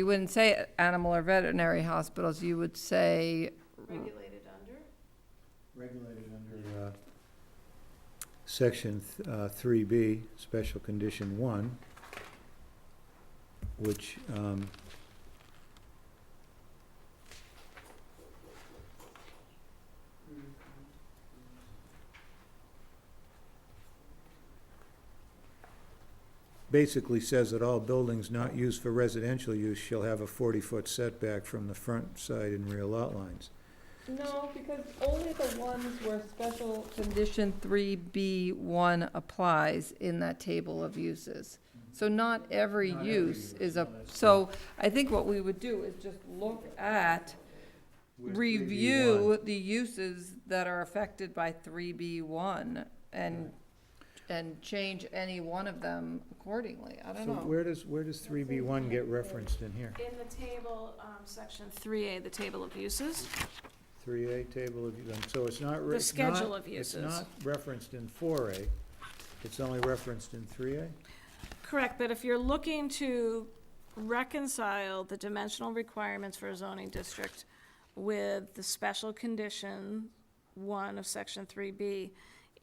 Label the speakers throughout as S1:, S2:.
S1: You wouldn't say animal or veterinary hospitals, you would say,
S2: regulated under?
S3: regulated under uh, Section th- uh, 3B, Special Condition 1, which um, basically says that all buildings not used for residential use shall have a 40-foot setback from the front side and rear lot lines.
S1: No, because only the ones where special condition three B one applies in that table of uses. So not every
S3: Not every
S1: use
S3: use,
S1: is a,
S3: no, that's
S1: so I think what we would do is just look at,
S3: Where 3B1
S1: review the uses that are affected by three B one and, and change any one of them accordingly. I don't
S3: So
S1: know.
S3: where does, where does three B one get referenced in here?
S2: In the table, um, section three A, the table of uses,
S3: Three A, table of, and so it's not. re-
S2: The
S3: it's not-
S2: schedule of uses.
S3: It's not referenced in four A, it's only referenced in three A?
S2: correct, but if you're looking to reconcile the dimensional requirements for a zoning district with the special condition one of section three B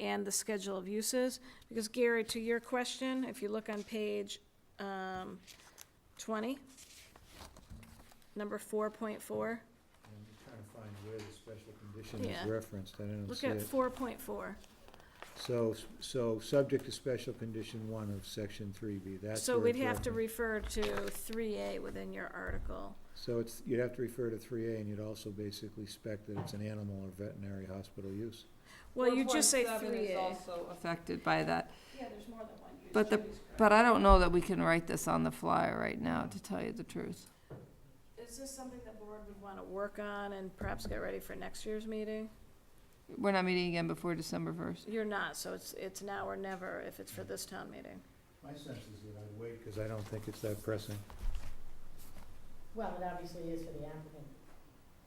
S2: and the schedule of uses, because Gary, to your question, if you look on page, um, twenty, number four point four,
S3: I'm just trying to find where the special condition
S2: Yeah.
S3: is referenced, I don't
S2: look
S3: see
S2: at
S3: it.
S2: four point four.
S3: So, so subject to special condition one of section three B, that's
S2: So
S3: where
S2: we'd
S3: it's
S2: have to
S3: referenced.
S2: refer to three A within your article.
S3: So it's, you'd have to refer to three A and you'd also basically spec that it's an animal or veterinary hospital use.
S2: Well, you just say
S1: 4.7
S2: three
S1: is
S2: A.
S1: also affected by that.
S2: Yeah, there's more than one use.
S1: But the- But I don't know that we can write this on the fly right now, to tell you the truth.
S2: Is this something the board would wanna work on and perhaps get ready for next year's meeting?
S1: We're not meeting again before December first.
S2: You're not, so it's, it's now or never if it's for this town meeting.
S3: My sense is that I'd wait, because I don't think it's that pressing.
S4: Well, it obviously is for the applicant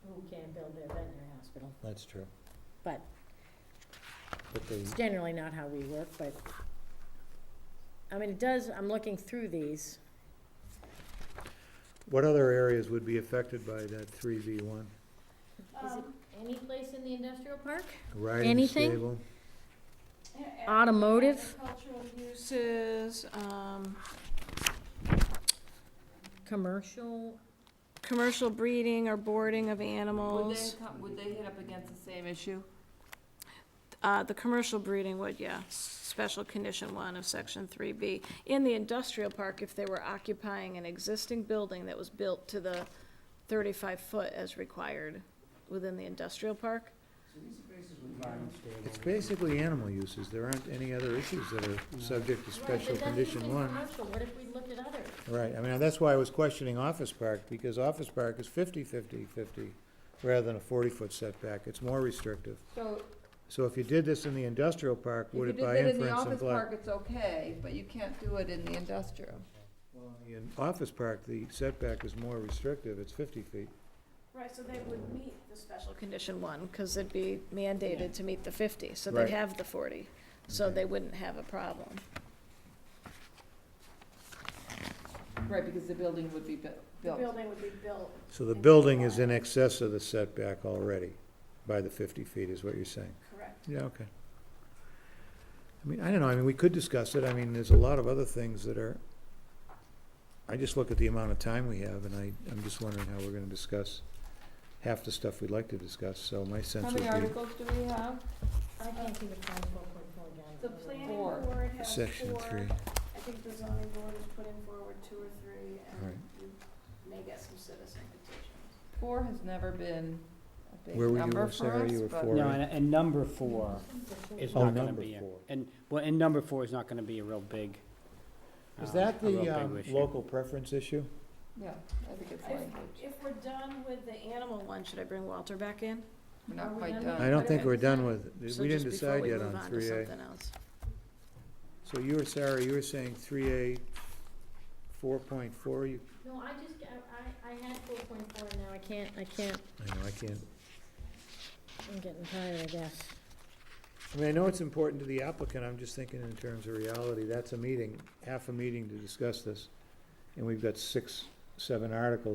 S4: who can build their veterinary hospital.
S3: That's true.
S4: But-
S3: But they,
S4: It's generally not how we work, but, I mean, it does, I'm looking through these.
S3: what other areas would be affected by that three B one?
S2: Um,
S4: Is it any place in the industrial park?
S3: Riding
S4: Anything?
S3: stable?
S4: Automotive?
S2: Cultural uses, um,
S4: Commercial?
S2: commercial breeding or boarding of
S1: Would they,
S2: animals.
S1: come- would they hit up against the same issue?
S2: Uh, the commercial breeding would, yeah, special condition one of section three B. In the industrial park, if they were occupying an existing building that was built to the thirty-five foot as required within the industrial park,
S3: It's basically animal uses, there aren't any other issues that are subject to special condition one.
S4: Right, but that's even commercial, what if we looked at others?
S3: Right, I mean, that's why I was questioning Office Park, because Office Park is 50, 50, 50, rather than a forty-foot setback, it's more restrictive.
S1: So
S3: So if you did this in the industrial park,
S1: if
S3: would
S1: you
S3: it
S1: did
S3: by
S1: that in
S3: inference imply?
S1: the office park, it's okay, but you can't do it in the industrial.
S3: Well, in the Office Park, the setback is more restrictive, it's fifty feet.
S2: Right, so they would meet the special condition one, because it'd be mandated to meet the fifty, so
S3: Right.
S2: they'd have the forty, so
S3: Okay.
S2: they wouldn't have a problem.
S1: Right, because the building would be bu- built.
S2: building would be built.
S3: So the building is in excess of the setback already, by the fifty feet, is what you're saying?
S2: Correct.
S3: Yeah, okay. I mean, I don't know, I mean, we could discuss it, I mean, there's a lot of other things that are, I just look at the amount of time we have, and I, I'm just wondering how we're gonna discuss half the stuff we'd like to discuss, so my sense
S1: How
S3: would
S1: many
S3: be
S1: articles do we have?
S4: I can't see the five four point four down.
S2: The planning
S1: Four.
S2: board has four.
S3: section three.
S2: I think the zoning board is putting forward two or three,
S3: Right.
S2: and you may get some citizen petitions.
S1: Four has never been a big
S3: Where were you,
S1: number
S3: uh, Sarah?
S1: for us,
S3: You were
S1: but-
S3: four.
S5: No, and, and number four is
S3: Oh,
S5: not gonna
S3: number
S5: be, a-
S3: four.
S5: and, well, and number four is not gonna be a real big.
S3: Is
S5: um,
S3: that
S5: a real
S3: the,
S5: big
S3: um,
S5: issue.
S3: local preference issue?
S1: Yeah, I think it's
S2: If-
S1: language.
S2: If we're done with the animal one, should I bring Walter back in?
S1: We're not
S4: Are we
S1: quite
S4: done
S1: done.
S4: yet?
S3: I don't think
S2: Okay.
S3: we're done with, it.
S2: So
S3: we
S2: just
S3: didn't
S2: before
S3: decide
S2: we
S3: yet
S2: move
S3: on
S2: to
S3: three A.
S2: something else.
S3: So you were, Sarah, you were saying three A, four point four, you,
S4: No, I just, I, I, I had four point four, now I can't, I can't,
S3: I know, I can't.
S4: I'm getting tired of this.
S3: I mean, I know it's important to the applicant, I'm just thinking in terms of reality, that's a meeting, half a meeting to discuss this, and we've got six, seven articles.